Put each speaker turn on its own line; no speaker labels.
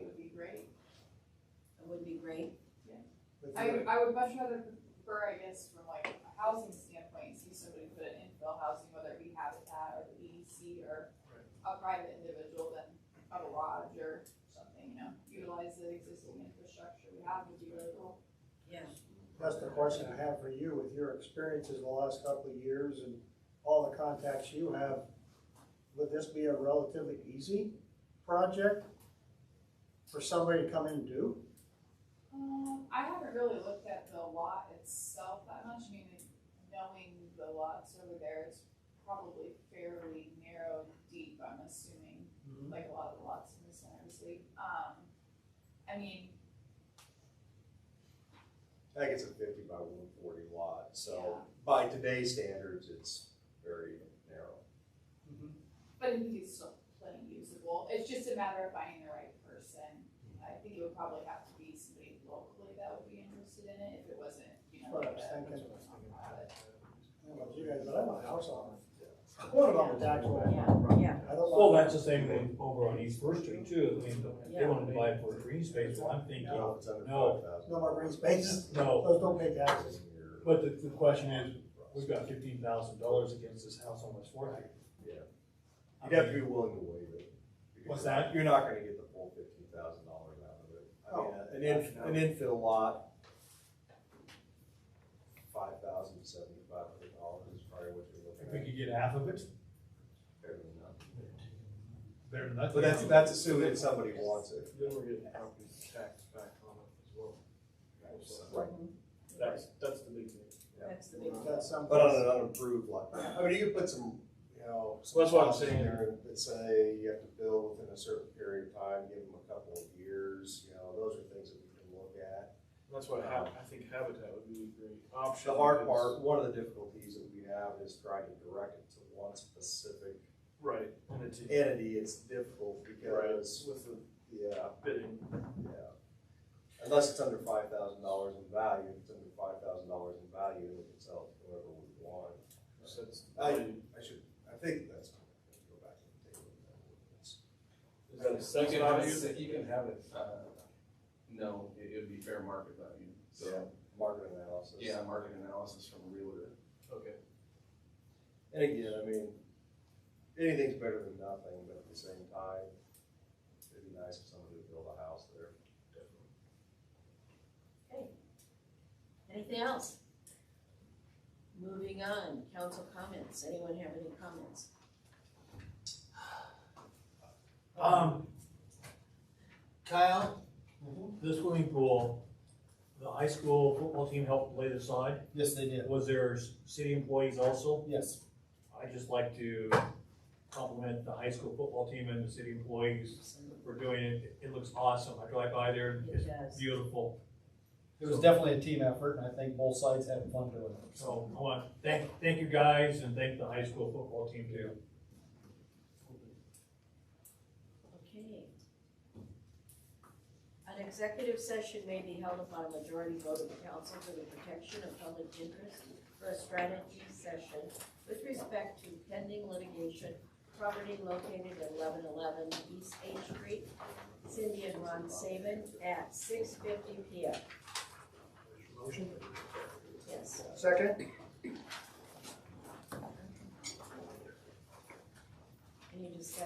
would be great.
But
I,
the-
I would much rather prefer, I guess, from like a housing standpoint, see somebody put an infill housing, whether it be Habitat or the EDC or a private individual than a lodge or something, you know, utilize the existing infrastructure we have would be really cool.
Yeah.
That's the question I have for you, with your experiences in the last couple of years and all the contacts you have, would this be a relatively easy project for somebody to come in and do?
Um, I haven't really looked at the lot itself that much, I mean, knowing the lots over there is probably fairly narrow and deep, I'm assuming. like a lot of the lots in the center of the city. Um, I mean,
I think it's a fifty by one forty lot, so by today's standards, it's very narrow.
Mhm.
but I think it's still plenty usable. It's just a matter of finding the right person. I think it would probably have to be somebody locally that would be interested in it if it wasn't, you know.
What I was
like a-
thinking.
private.
I don't know about you guys, but I want a house on it. What about the tax roll?
Yeah, yeah.
I don't
Well,
want,
that's the same thing over on East First Street too, I mean, they wanna divide for a green space, well, I'm thinking,
No, it's under
No.
5,000.
no more green spaces,
no.
those don't pay taxes.
But the, the question is, we've got fifteen thousand dollars against this house on West Fourth Street.
Yeah.
I
You'd have to
mean,
be willing to waive it. because
What's that?
You're not gonna get the full fifteen thousand dollars out of it. I mean, an
Oh.
in, an infill lot, five thousand seventy-five hundred dollars is probably what you're
If we
looking at.
could get half of it,
Fair enough.
better than nothing.
But that's, that's assuming somebody wants it.
Then we're getting property tax back on it as well.
Right.
That's, that's the big thing.
That's the big,
That's some.
But uh, on an unapproved lot, I mean, you could put some, you know. some
Well, that's what I'm
clause in
saying.
there That say you have to build within a certain period of time, give them a couple of years, you know, those are things that we can look at.
That's what hap, I think Habitat would be a great option.
The hard
is-
part, one of the difficulties that we have is trying to direct it to one specific
Right, and it's a-
entity, it's difficult because,
with the
yeah,
bidding.
yeah. Unless it's under five thousand dollars in value, if it's under five thousand dollars in value, then we can sell it to whoever we want.
So it's-
I, I should, I think that's, go back and take a look at that ordinance.
Is that a
You
second
can have
value?
it- You can have it, uh, no, it, it'd be fair market value, so,
So, market analysis.
yeah, market analysis from a realtor.
Okay.
And again, I mean, anything's better than nothing, but at the same time, it'd be nice if somebody would build a house there.
anything else? Moving on, council comments, anyone have any comments?
Um, Kyle, the swimming pool, the high school football team helped lay the sod.
Yes, they did.
Was there s- city employees also?
Yes.
I'd just like to compliment the high school football team and the city employees for doing it. It looks awesome. I drive by there,
It
it's
does.
beautiful.
It was definitely a team effort, and I think both sides had fun doing it.
So I want to thank, thank you guys and thank the high school football team too.
Okay. An executive session may be held upon a majority vote of the council for the protection of public interest for a strategy session with respect to pending litigation, property located at eleven eleven East Eighth Street, Cindy and Ron Saban, at six fifty P M.
Motion?
Yes.
Second?
Any discussion?